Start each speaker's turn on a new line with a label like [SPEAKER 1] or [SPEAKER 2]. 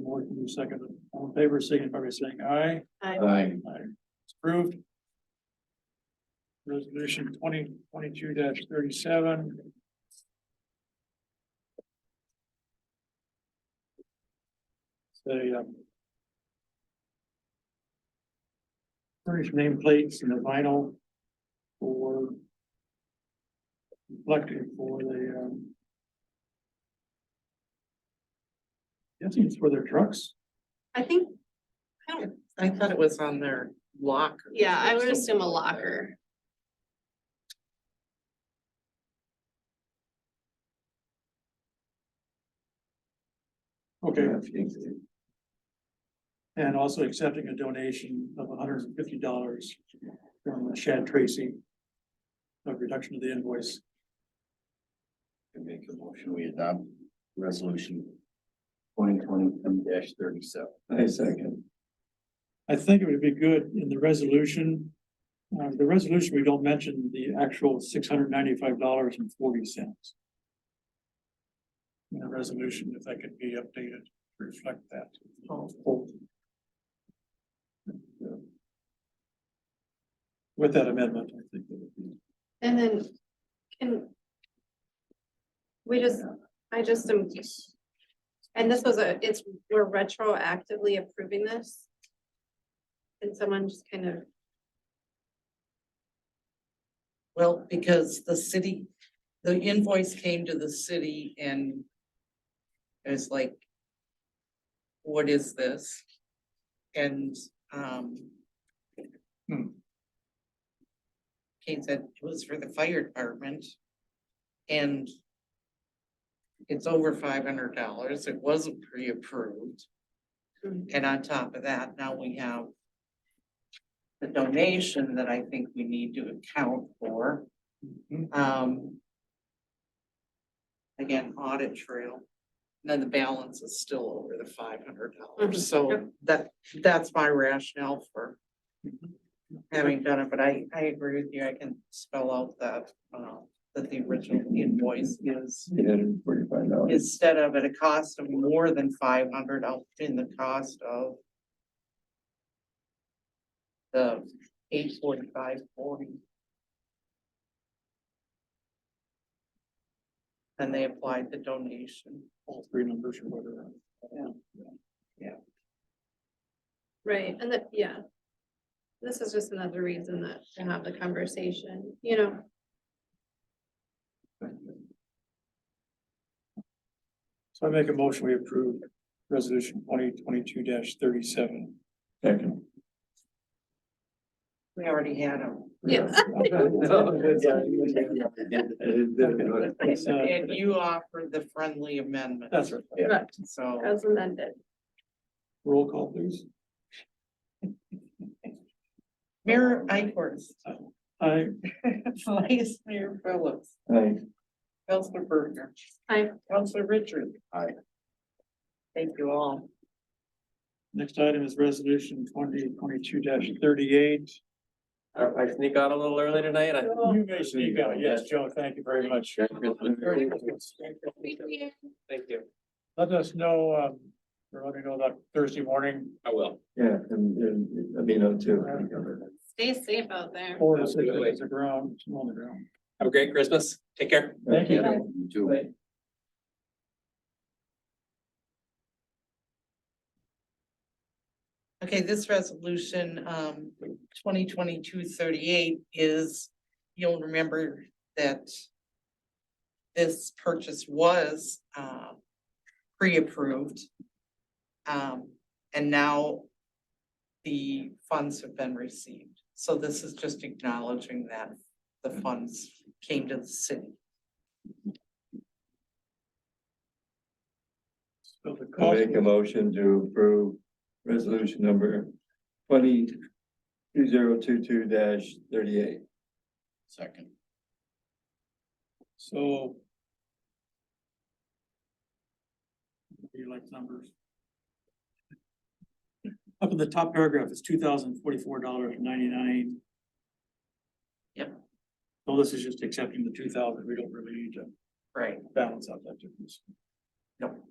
[SPEAKER 1] board can do second. All in favor, signify by saying aye.
[SPEAKER 2] Aye.
[SPEAKER 1] Aye. It's Approved. Resolution twenty twenty-two thirty-seven. Say, um. Furnish nameplates and the vinyl for. Reflecting for the, um. Guessing it's for their trucks.
[SPEAKER 3] I think, I don't,
[SPEAKER 4] I thought it was on their locker.
[SPEAKER 3] yeah, I would assume a locker.
[SPEAKER 1] Okay. And also accepting a donation of hundred and fifty dollars from Shad Tracy. A reduction of the invoice.
[SPEAKER 2] I Make a motion, we adopt resolution twenty twenty-two thirty-seven. I second.
[SPEAKER 1] I think it would be good in the resolution. Uh, the resolution, we don't mention the actual six hundred ninety-five dollars and forty cents. In the resolution, if that could be updated, to reflect that. With that amendment, I think it would be.
[SPEAKER 3] And then can. We just, I just am. And this was a, it's, we're retroactively approving this. And someone just kind of,
[SPEAKER 4] Well, because the city, the invoice came to the city and it was like, what is this? And, um,
[SPEAKER 1] Hmm.
[SPEAKER 4] Kate said it was for the fire department and it's over five hundred dollars. It wasn't pre-approved.
[SPEAKER 3] Mhm.
[SPEAKER 4] And on top of that, now we have the donation that I think we need to account for. Um. Again, audit trail, and then the balance is still over the five hundred
[SPEAKER 3] Mhm,
[SPEAKER 4] dollars, so that, that's my rationale for. Having done it, but I, I agree with you, I can spell out that, uh, that the original invoice is.
[SPEAKER 2] forty-five dollars.
[SPEAKER 4] Instead of at a cost of more than five hundred, I'll put in the cost of. The eight forty-five forty. And they applied the donation.
[SPEAKER 1] all three numbers or whatever.
[SPEAKER 3] right, and that, yeah. This is just another reason that to have the conversation, you know,
[SPEAKER 1] So I make a motion, we approve resolution twenty twenty-two thirty-seven.
[SPEAKER 2] Second.
[SPEAKER 4] We already had them.
[SPEAKER 3] Yeah.
[SPEAKER 4] And you offered the friendly amendment.
[SPEAKER 1] That's right.
[SPEAKER 3] correct,
[SPEAKER 4] So.
[SPEAKER 3] as amended.
[SPEAKER 1] Roll call, please.
[SPEAKER 4] Mayor Ikorst,
[SPEAKER 1] I,
[SPEAKER 4] Vice Mayor Phillips, Councilor Berger.
[SPEAKER 3] Aye.
[SPEAKER 4] Councilor Richard.
[SPEAKER 2] Aye.
[SPEAKER 4] Thank you all.
[SPEAKER 1] next item is resolution twenty twenty-two thirty-eight.
[SPEAKER 5] I I sneak out a little early tonight, I.
[SPEAKER 1] You may speak out. Yes, Joe, thank you very much.
[SPEAKER 5] Thank you.
[SPEAKER 1] Let us know, um, or let me know that Thursday morning,
[SPEAKER 5] I will.
[SPEAKER 2] Yeah, and, and, I mean, I'm too.
[SPEAKER 3] Stay safe out there.
[SPEAKER 1] four to six days of ground, snow on the ground.
[SPEAKER 5] Have a great Christmas. Take care.
[SPEAKER 1] Thank you.
[SPEAKER 2] You too.
[SPEAKER 4] Okay, this resolution, um, 2022-38 is, you'll remember that this purchase was, uh, pre-approved. Um, and now the funds have been received. So this is just acknowledging that the funds came to the city.
[SPEAKER 1] So the
[SPEAKER 2] I
[SPEAKER 1] cost,
[SPEAKER 2] Make a motion to approve resolution number twenty two zero two two dash thirty-eight. Second.
[SPEAKER 1] so. Do you like numbers? Up in the top paragraph, it's two thousand forty-four dollars ninety-nine.
[SPEAKER 4] Yep.
[SPEAKER 1] So this is just accepting the two thousand, we don't really need to
[SPEAKER 4] Right.
[SPEAKER 1] balance out that difference.